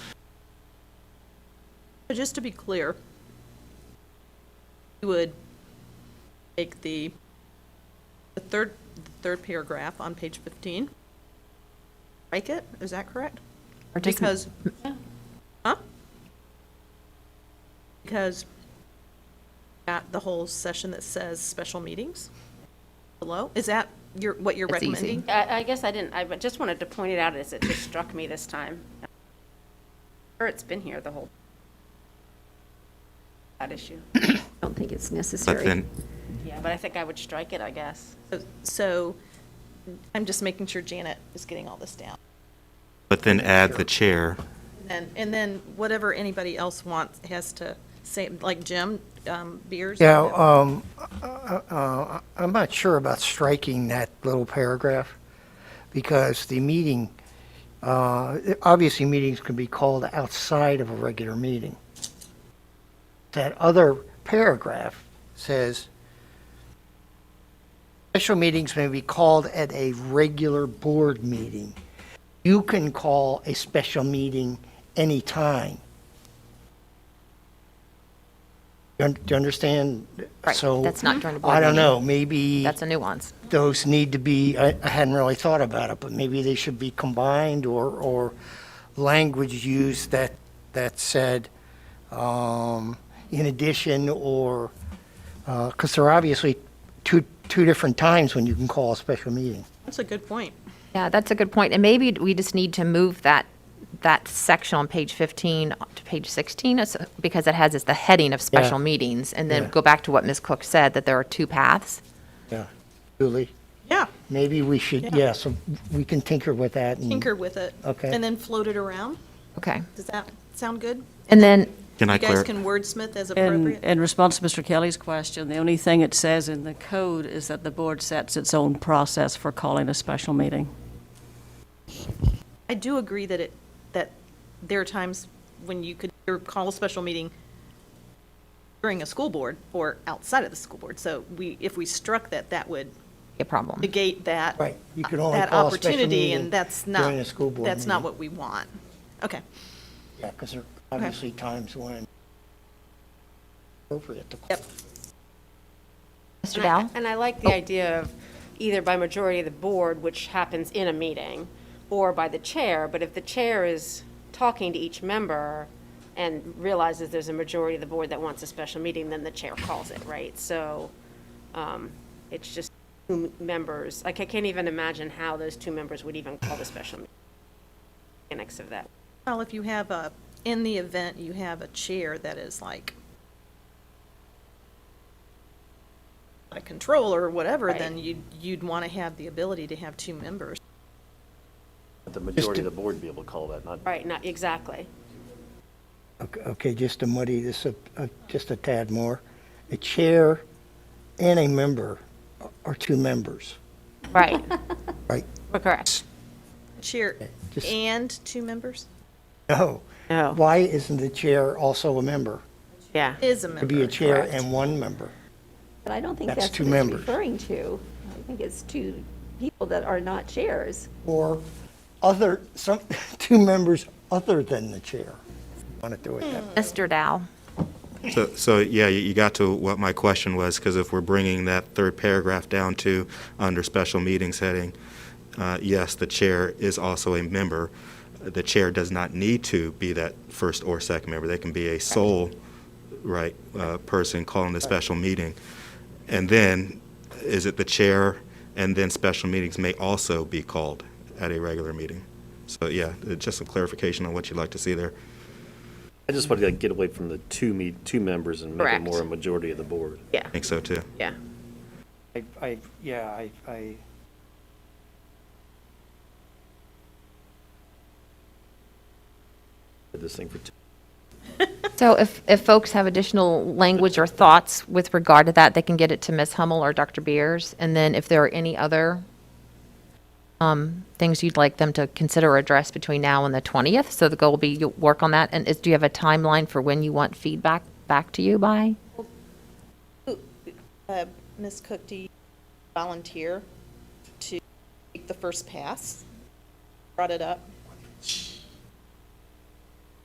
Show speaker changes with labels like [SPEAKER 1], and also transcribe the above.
[SPEAKER 1] But just to be clear, you would take the, the third, the third paragraph on page 15, strike it, is that correct?
[SPEAKER 2] Or just-
[SPEAKER 1] Because, huh? Because at the whole session that says special meetings below, is that your, what you're
[SPEAKER 2] That's easy.
[SPEAKER 1] recommending?
[SPEAKER 3] I, I guess I didn't, I just wanted to point it out as it just struck me this time. Or it's been here the whole, that issue.
[SPEAKER 2] I don't think it's
[SPEAKER 4] But
[SPEAKER 2] necessary.
[SPEAKER 4] then,
[SPEAKER 3] Yeah, but I think I would strike it, I guess.
[SPEAKER 1] So- So, I'm just making sure Janet is getting all this down.
[SPEAKER 4] but then add the chair.
[SPEAKER 1] And, and then whatever anybody else wants, has to say, like Jim, um, Beers?
[SPEAKER 5] Yeah, um, uh, I'm not sure about striking that little paragraph, because the meeting, uh, obviously, meetings can be called outside of a regular meeting. That other paragraph says, special meetings may be called at a regular board meeting. You can call a special meeting anytime. You un- Do you understand?
[SPEAKER 2] Right,
[SPEAKER 5] So,
[SPEAKER 2] that's not during the board
[SPEAKER 5] I don't
[SPEAKER 2] meeting.
[SPEAKER 5] know, maybe
[SPEAKER 2] That's a nuance.
[SPEAKER 5] those need to be, I I hadn't really thought about it, but maybe they should be combined or, or language used that, that said, um, in addition, or, because there are obviously two, two different times when you can call a special meeting.
[SPEAKER 1] That's a good point.
[SPEAKER 2] Yeah, that's a good point. And maybe we just need to move that, that section on page 15 to page 16 as- because it has, it's the heading of special meetings. And then
[SPEAKER 5] Yeah.
[SPEAKER 2] go back to what Ms. Cook said, that there are two paths.
[SPEAKER 5] Yeah. Julie,
[SPEAKER 1] Yeah,
[SPEAKER 5] maybe we should,
[SPEAKER 1] Yeah.
[SPEAKER 5] yeah, so we can tinker with that. and-
[SPEAKER 1] tinker with it.
[SPEAKER 5] Okay.
[SPEAKER 1] And then float it around.
[SPEAKER 2] Okay.
[SPEAKER 1] Does that sound good?
[SPEAKER 2] And then,
[SPEAKER 4] Can I
[SPEAKER 1] You guys
[SPEAKER 4] clar,
[SPEAKER 1] can wordsmith as
[SPEAKER 6] In,
[SPEAKER 1] appropriate.
[SPEAKER 6] in response to Mr. Kelly's question, the only thing it says in the code is that the board sets its own process for calling a special meeting.
[SPEAKER 1] I do agree that it, that there are times when you could or call a special meeting during a school board or outside of the school board. So we, if we struck that, that would
[SPEAKER 2] a problem.
[SPEAKER 1] negate that.
[SPEAKER 5] Right, you could only
[SPEAKER 1] that
[SPEAKER 5] call a special
[SPEAKER 1] opportunity,
[SPEAKER 5] meeting
[SPEAKER 1] And that's not.
[SPEAKER 5] during a school board
[SPEAKER 1] That's not
[SPEAKER 5] meeting.
[SPEAKER 1] what we want. Okay.
[SPEAKER 5] Yeah, because there are obviously times when appropriate to call.
[SPEAKER 1] Yep.
[SPEAKER 2] Mr. Dow?
[SPEAKER 3] And I like the idea of either by majority of the board, which happens in a meeting, or by the chair, but if the chair is talking to each member and realizes there's a majority of the board that wants a special meeting, then the chair calls it, right? So um, it's just two members, like, I can't even imagine how those two members would even call the special meeting. Annex of that.
[SPEAKER 1] Well, if you have a, in the event you have a chair that is like a controller or whatever, then
[SPEAKER 3] Right.
[SPEAKER 1] you'd, you'd want to have the ability to have two members.
[SPEAKER 7] The majority of the board be able to call that, not
[SPEAKER 3] Right, not, exactly.
[SPEAKER 5] Okay- Okay, just to muddy this up, uh, just a tad more, a chair and a member are two members,
[SPEAKER 3] Right,
[SPEAKER 5] right?
[SPEAKER 3] we're correct.
[SPEAKER 1] Chair
[SPEAKER 5] just-
[SPEAKER 1] and two members
[SPEAKER 5] No.
[SPEAKER 3] No.
[SPEAKER 5] Why isn't the chair also a member?
[SPEAKER 3] Yeah.
[SPEAKER 1] is a member.
[SPEAKER 5] Could be a chair
[SPEAKER 3] correct.
[SPEAKER 5] and one member.
[SPEAKER 8] But I don't think
[SPEAKER 5] That's
[SPEAKER 8] that's
[SPEAKER 5] two
[SPEAKER 8] what it's
[SPEAKER 5] members.
[SPEAKER 8] referring to. I think it's two people that are not chairs.
[SPEAKER 5] Or other, some, two members other than the chair. Want to do
[SPEAKER 3] Hmm.
[SPEAKER 5] it that way?
[SPEAKER 2] Mr. Dow?
[SPEAKER 4] so, so, yeah, you- you got to what my question was, because if we're bringing that third paragraph down to, under special meetings heading, uh, yes, the chair is also a member. The chair does not need to be that first or second member. They can be a sole, right, uh, person calling the special meeting. And then, is it the chair, and then special meetings may also be called at a regular meeting? So, yeah, uh, just some clarification on what you'd like to see there.
[SPEAKER 7] I just want to get away from the two me, two members and make it
[SPEAKER 3] Correct.
[SPEAKER 7] more a majority of the board.
[SPEAKER 3] Yeah,
[SPEAKER 4] I think so, too.
[SPEAKER 3] yeah.
[SPEAKER 5] I, I, yeah, I, I.
[SPEAKER 7] Did this thing for two.
[SPEAKER 2] So if, if folks have additional language or thoughts with regard to that, they can get it to Ms. Hummel or Dr. Beers. And then if there are any other um, things you'd like them to consider or address between now and the 20th, so the goal will be you work on that. And is, do you have a timeline for when you want feedback back to you by?
[SPEAKER 1] Uh, Ms. Cook, do you volunteer to take the first pass? Brought it up.